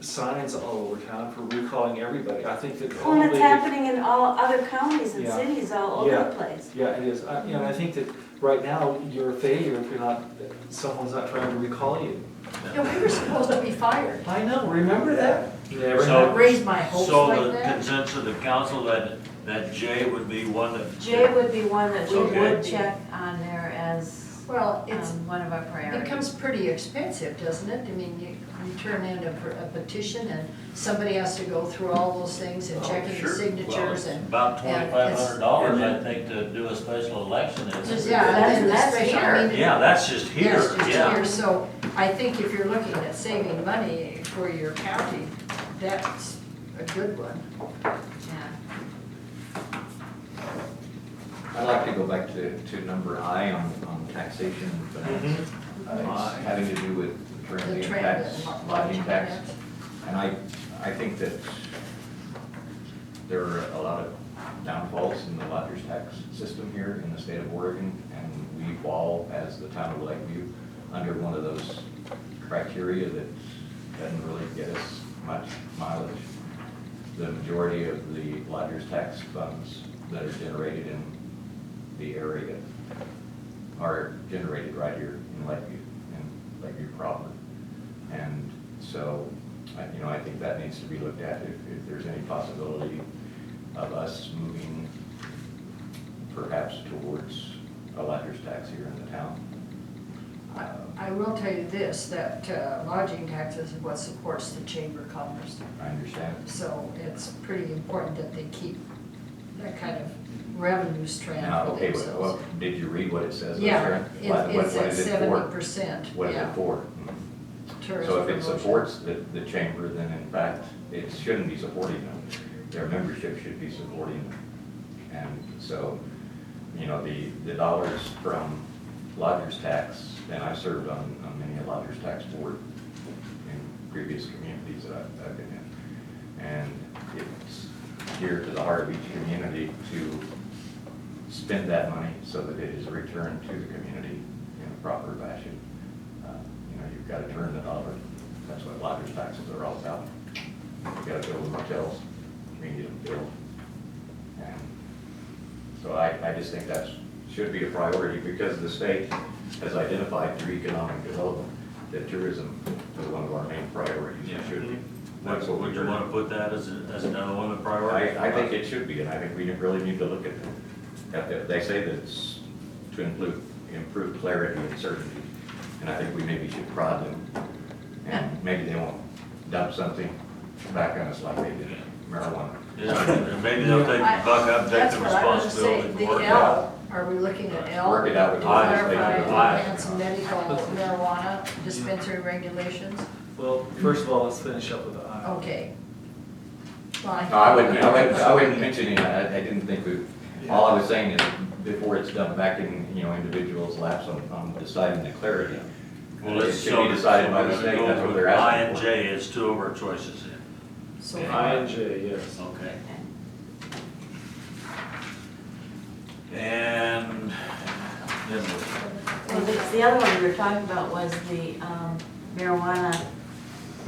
signs all over town for recalling everybody. I think that Well, and probably. it's happening in all other counties and Yeah. cities all over Yeah. the place. Yeah, it is. I- You know, I think that right now, you're a failure if you're not, someone's not trying to recall you. Yeah, we were supposed to be fired. I know, remember that? Never So- happened. Raised my hopes So like the that. consensus of the council that, that J would be one that. J would be one that we Okay. would check on there as Well, it's, um, one of our it priorities. becomes pretty expensive, doesn't it? I mean, you, you turn in a per- a petition and somebody has to go through all those things and checking the Oh, Sure. Well, signatures it's and, About and it's- twenty-five hundred dollars, I And think, to do a special election. isn't it? Just- yeah, That's- and the that's special, here. I mean. Yeah, that's just here, Yes, just yeah. here. So I think if you're looking at saving money for your county, that's a good one. Yeah. I'd like to go back to, to number I on, on taxation and mm-hmm. finance. Uh, it's having to do with The transient trend tax, and lo- lodging lodging tax. tax. And I, I think that there are a lot of downfalls in the lodger's tax system here in the state of Oregon, and we fall as the town of Lakeview under one of those criteria that doesn't really get us much mileage. The majority of the lodger's tax funds that are generated in the area are generated right here in Lakeview, in Lakeview proper. And so, I- you know, I think that needs to be looked at, if, if there's any possibility of us moving perhaps towards a lodger's tax here in the town. I- I will tell you this, that uh, lodging tax is what supports the Chamber of Commerce. I understand So it's pretty important that they keep that kind of revenue strand Now, for okay, well, themselves. well, did you read what it says? up Yeah, there? What- it- what- it's what at is it for? seventy percent, What is it yeah. for? Tourism So if it promotion. supports the, the chamber, then in fact, it shouldn't be supporting them. Their membership should be supporting them. And so, you know, the, the dollars from lodger's tax, and I've served on, on many a lodger's tax board in previous communities that I've, I've been in. And it's dear to the heart of each community to spend that money so that it is returned to the community in a proper fashion. Uh, You know, you've got to turn the dollar, that's what lodger's taxes are all about. You've got to build motels, we need them built. And So I, I just think that should be a priority because the state has identified through economic development that tourism is one of our main priorities. It should be. That's what Would we're you wanna put doing. that as, a- as another one of the priorities? I, I think it should be, and I think we really need to look at, at that. They say that it's to improve, improve clarity and certainty, and I think we maybe should prod them. And maybe they won't dump something back on us like they did marijuana. Yeah, Maybe they'll take the I- buck up, take That's the what I was gonna say, responsibility. the and work it out. L, are we looking at L? Work it out with To the legislature. Clarify, Aye. enhance medical marijuana dispensary regulations, Well, first of all, let's finish up with the I. okay. Well, I- No, I wouldn't, I wouldn't, I wouldn't mention it, I, I didn't think we, all I was saying is, before it's dumped back in, you know, individuals' laps on, on deciding the clarity. Well, let's, It so. should be decided by the so we're gonna state, go that's what with they're I asking and for. J is two of our choices here. So, I and J, yes. Okay. And then we'll- Well, the, the other one we were talking about was the um, marijuana,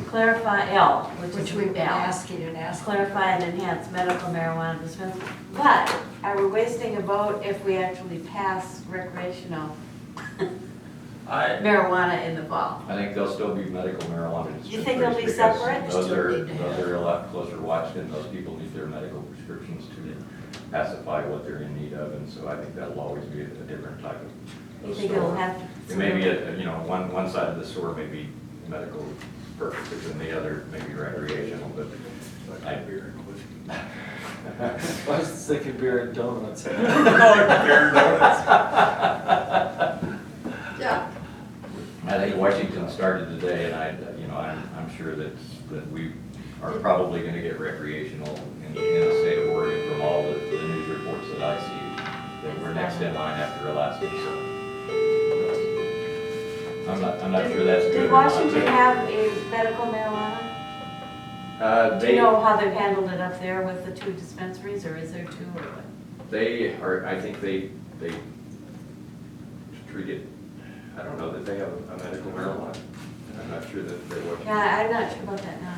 clarify L, which Which is we've been L. asking and asking. Clarify and enhance medical marijuana dispensary. But are we wasting a vote if we actually pass recreational I, marijuana in the fall? I think they'll still be medical marijuana dispensaries. You think they'll be because separate? Those Still are, need to have- those are a lot closer watched, and those people need their medical prescriptions to pacify what they're in need of, and so I think that'll always be a different type of. You think it'll store. have to? It may be, a- you know, one, one side of the store may be medical purposes, and the other may be recreational, but I. I was thinking beer and donuts. Yeah, I think Washington started today, and I, you know, I'm, I'm sure that, that we are probably gonna get recreational in, in the state of Oregon from all the, the news reports that I see, that we're next in line after Alaska, so. I'm not, I'm not sure that's good. Did or not, Washington but- have a medical marijuana? Uh, Do you they, know how they've handled it up there with the two dispensaries, or is there two or what? they are, I think they, they treat it, I don't know that they have a medical marijuana. I'm not sure that they Washington. Yeah, I'm not sure about that now.